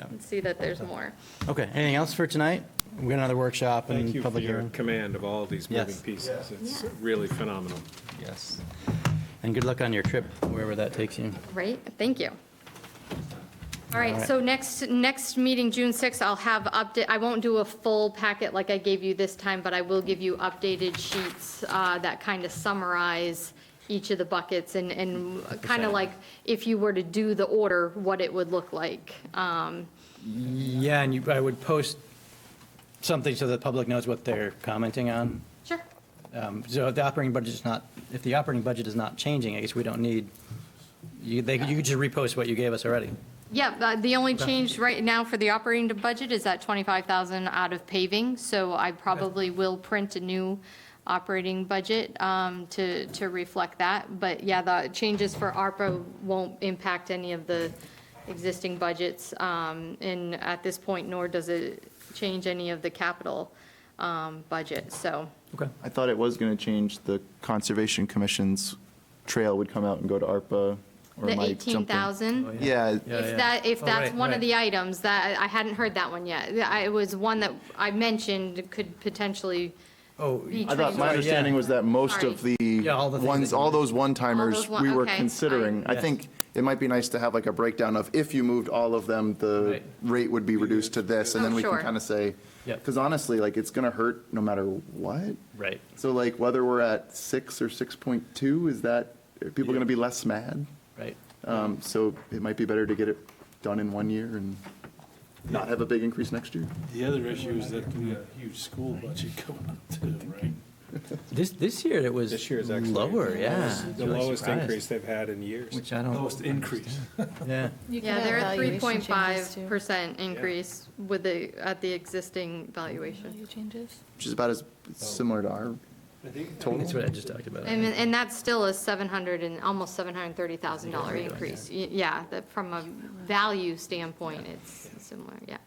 and see that there's more. Okay, anything else for tonight? We got another workshop Thank and you for public your hearing. command of all these moving Yes. pieces. It's Yeah. really phenomenal. Yes. And good luck on your trip, wherever that takes you. Right, thank you. All All right, right. so next, next meeting, June 6th, I'll have update, I won't do a full packet like I gave you this time, but I will give you updated sheets uh, that kind of summarize each of the buckets and, and kind of Percent. like, if you were to do the order, what it would look like. Um, Yeah, and you, I would post something so the public knows what they're commenting on. Sure, Um, So if the operating budget is not, if the operating budget is not changing, I guess we don't need, you, they, you could just repost what you gave us already. yeah, but the only change right now for the operating budget is that 25,000 out of paving, so I probably will print a new operating budget um, to, to reflect that, but yeah, the changes for ARPA won't impact any of the existing budgets, um, and at this point, nor does it change any of the capital um, budget, so, Okay. I thought it was going to change the Conservation Commission's trail would come out and go to ARPA. or the am I jumping? 18,000. Oh, Yeah, Yeah, yeah. If that, if Oh, that's right, one of right. the items, that, I hadn't heard that one yet. I- It was one that I mentioned could potentially Oh, be I thought, my Sorry, transferred. yeah. understanding was that most of Sorry. the Yeah, all the things ones, that you- all those All those one-timers one- we were okay, considering. fine. I Yes. think it might be nice to have like a breakdown of if you moved all of them, the Right. rate would be reduced to this, and Oh, then we can sure. kind of say, Yep. because honestly, like, it's going to hurt no matter what. Right. So like, whether we're at six or 6.2, is that, are people going to be less mad? Right. Um, So it might be better to get it done in one year and not have a big increase next year. The other issue is that we have a huge school budget going up too, right? This, this year it was This year is actually lower, the yeah. lowest- The lowest increase they've had in years. Which I don't, Lowest increase. yeah. Yeah, they're a 3.5% increase with the, at the existing valuation. Changes? Which is about as similar to our That's what total. I just talked about. And, and that's still a 700 and, almost $730,000 increase. Y- Yeah, that from a value standpoint, it's similar, yeah.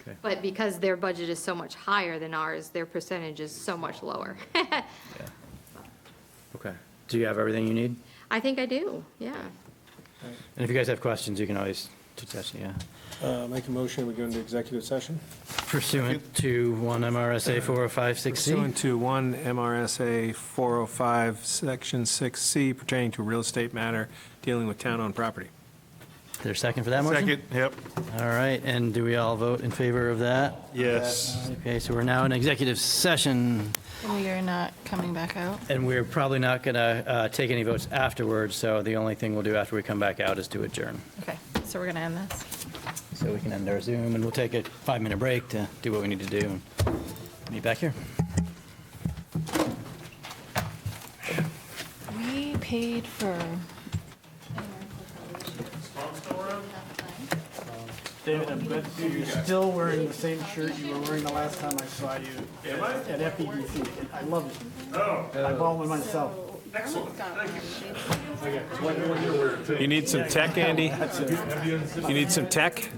Okay. But because their budget is so much higher than ours, their percentage is so much lower. Yeah. Okay. Do you have everything you need? I think I do, yeah. And if you guys have questions, you can always touch us, yeah. Uh, Make a motion, we go into executive session? Pursuant to 1 MRSA 4056C. Uh, Pursuant to one MRSA 405, Section 6C pertaining to real estate matter dealing with town-owned property. There's a second for that motion? yep. All right, and do we all vote in favor of that? Yes. Okay, so we're now in executive session, And we are not coming back out. and we're probably not going to take any votes afterwards, so the only thing we'll do after we come back out is to adjourn. Okay, so we're going to end this. So we can end our Zoom, and we'll take a five-minute break to do what we need to do, and be back here. We paid for. David, I bet you're still wearing the same shirt you were wearing the last time I saw you. At FEDC. I love it. I bought one myself. You need some tech, Andy? You need some tech?